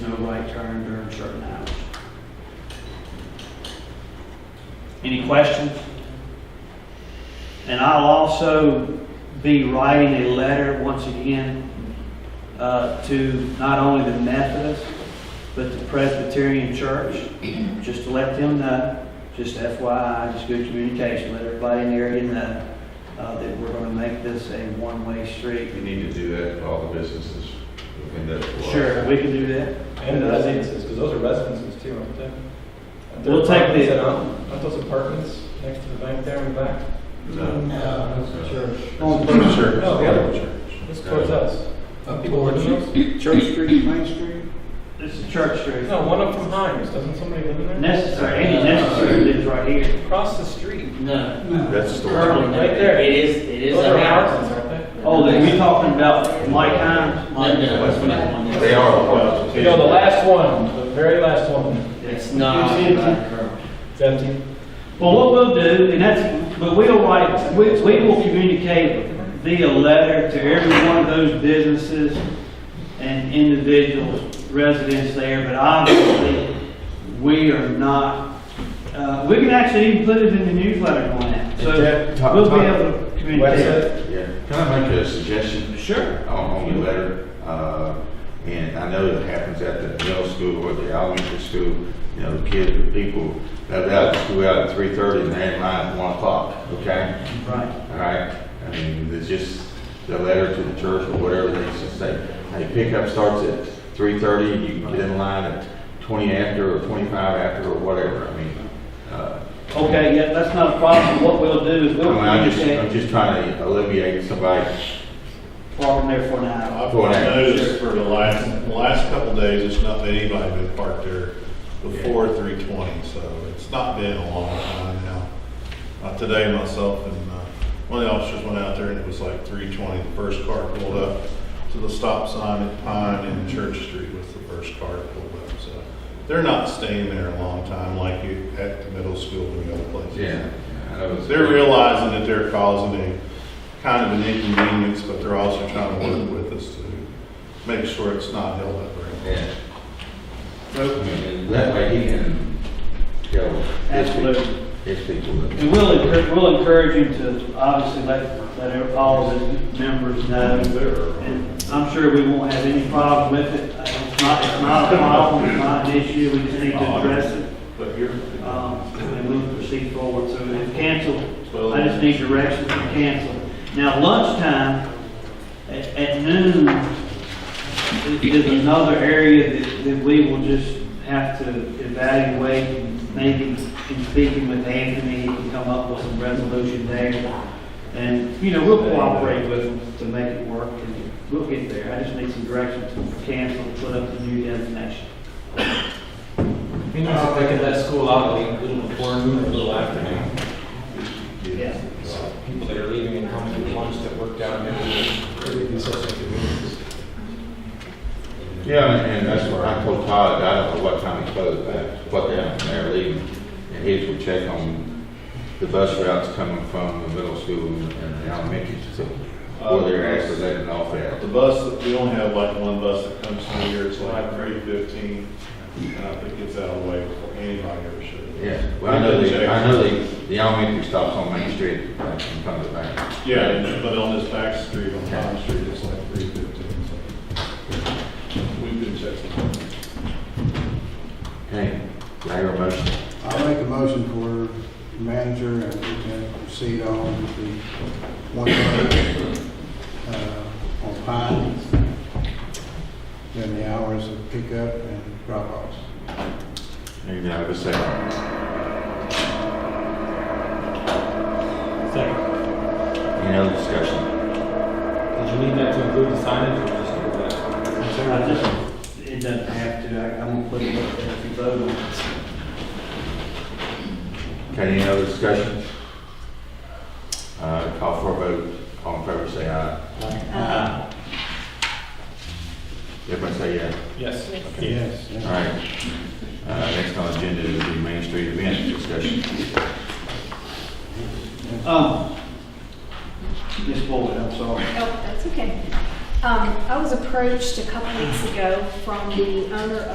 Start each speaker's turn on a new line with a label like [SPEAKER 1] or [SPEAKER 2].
[SPEAKER 1] right turn during certain hours. Any questions? And I'll also be writing a letter once again uh, to not only the Methodist, but the Presbyterian Church, just to let them know, just FYI, just good communication, let everybody in the area know uh, that we're going to make this a one-way street.
[SPEAKER 2] You need to do that for all the businesses within that block.
[SPEAKER 1] Sure, we can do that.
[SPEAKER 3] And the residences, because those are residences too, aren't they? Aren't there
[SPEAKER 1] We'll take
[SPEAKER 3] apartments
[SPEAKER 1] the-
[SPEAKER 3] that Aren't aren't those apartments next to the bank there in the back?
[SPEAKER 2] No.
[SPEAKER 4] No, church.
[SPEAKER 2] On the church.
[SPEAKER 3] No, the other
[SPEAKER 2] church.
[SPEAKER 3] It's towards us.
[SPEAKER 4] Up
[SPEAKER 3] People live in those?
[SPEAKER 4] Uh, Church Street, Main Street?
[SPEAKER 1] This is Church Street.
[SPEAKER 3] No, one up from Hines, doesn't somebody live in there?
[SPEAKER 1] Necessary, any necessary lives right here.
[SPEAKER 3] Across the street.
[SPEAKER 5] No.
[SPEAKER 2] That's the
[SPEAKER 1] Early.
[SPEAKER 2] one.
[SPEAKER 3] Right there.
[SPEAKER 5] It is, it is
[SPEAKER 3] Those are
[SPEAKER 5] a house.
[SPEAKER 3] apartments, aren't they?
[SPEAKER 1] Oh, then we talking about Mike Hines?
[SPEAKER 5] No, no, it's not one.
[SPEAKER 2] They are apartments.
[SPEAKER 3] You know, the last one, the very last one,
[SPEAKER 5] It's not.
[SPEAKER 1] It's empty.
[SPEAKER 3] it's empty.
[SPEAKER 1] Well, what we'll do, and that's, but we'll write, we, we will communicate via letter to every one of those businesses and individuals, residents there, but obviously, we are not, uh, we can actually even put it in the newsletter on that. So
[SPEAKER 2] Is that-
[SPEAKER 1] we'll be able to communicate.
[SPEAKER 3] Website?
[SPEAKER 2] Yeah. Can I make a suggestion
[SPEAKER 1] Sure.
[SPEAKER 2] on, on your letter? Uh, and I know it happens at the middle school or the elementary school, you know, the kids, the people, they're out of school out at three thirty and they're in line at one o'clock, okay?
[SPEAKER 1] Right.
[SPEAKER 2] All right, I mean, there's just the letter to the church or whatever, they just say, hey, pickup starts at three thirty, you can get in line at twenty after or twenty-five after or whatever, I mean, uh,
[SPEAKER 1] Okay, yeah, that's not a problem. What we'll do is
[SPEAKER 2] I
[SPEAKER 1] we'll
[SPEAKER 2] mean, I'm just, I'm
[SPEAKER 1] communicate
[SPEAKER 2] just trying to alleviate somebody
[SPEAKER 1] parking there for an hour.
[SPEAKER 6] I've
[SPEAKER 2] Go on.
[SPEAKER 6] noticed for the last, the last couple days, it's not been anybody been parked there before three twenty, so it's not been a long time now. Uh, today myself and, uh, one of the officers went out there and it was like three twenty, the first car pulled up to the stop sign at Pine and Church Street was the first car that pulled up, so. They're not staying there a long time like you, at the middle school and the other places.
[SPEAKER 2] Yeah. I know it's-
[SPEAKER 6] They're realizing that they're causing a kind of an inconvenience, but they're also trying to work with us to make sure it's not held up very long.
[SPEAKER 2] Yeah. I mean, That way he can go.
[SPEAKER 1] Absolutely.
[SPEAKER 2] His people. that-
[SPEAKER 1] And we'll encourage, we'll encourage you to obviously let, let all of the members know. And I'm sure we won't have any problem with it. Uh, It's not, it's not a problem, it's not an issue, we just need to address it.
[SPEAKER 6] But you're,
[SPEAKER 1] Um, and we'll proceed forward, so if canceled, I just need directions to cancel. Now lunchtime, at, at noon, is- is another area that, that we will just have to evaluate. Maybe in speaking with Anthony, he can come up with some resolution there. And, you know, we'll cooperate with him to make it work, and we'll get there. I just need some direction to cancel, put up the new designation.
[SPEAKER 3] You know, if they could let school out like a little before noon or a little after noon.
[SPEAKER 1] Yeah.
[SPEAKER 3] So People that are leaving and coming to lunch that work down there, it would be such a convenience.
[SPEAKER 2] Yeah, and and that's where I told Todd, I don't know what time he closed, but what down when they're leaving. And his would check on the bus routes coming from the middle school and the elementary school. Where they're actually letting off at.
[SPEAKER 6] uh, the bus, we only have like one bus that comes through here, it's like three fifteen, and I think it gets out of the way before anybody ever should.
[SPEAKER 2] Yeah, well, I know the, I know the, the elementary stops on Main Street, uh, in front of the bank.
[SPEAKER 6] Yeah, and- but on this back street, on Pine Street, it's like three fifteen, so. We've been checking.
[SPEAKER 2] Okay, do I hear a motion?
[SPEAKER 4] I'll make a motion for manager and we can proceed on with the one vote, uh, on Pine. Then the hours of pickup and drop offs.
[SPEAKER 2] And I have a second.
[SPEAKER 3] Second,
[SPEAKER 2] Any other discussion?
[SPEAKER 3] did you need that to include the signage or just do that?
[SPEAKER 1] I just, it doesn't have to, I- I'm gonna put it up there if you vote on it.
[SPEAKER 2] Okay, any other discussion? Uh, call for a vote, all in favor, say aye. Aye. Everybody say yeah.
[SPEAKER 3] Yes.
[SPEAKER 4] Yes. yeah.
[SPEAKER 2] All right. Uh, Next on the agenda is the Main Street event discussion.
[SPEAKER 1] Um, Ms. Boyd, I'm sorry.
[SPEAKER 7] Oh, that's okay. Um, I was approached a couple weeks ago from the owner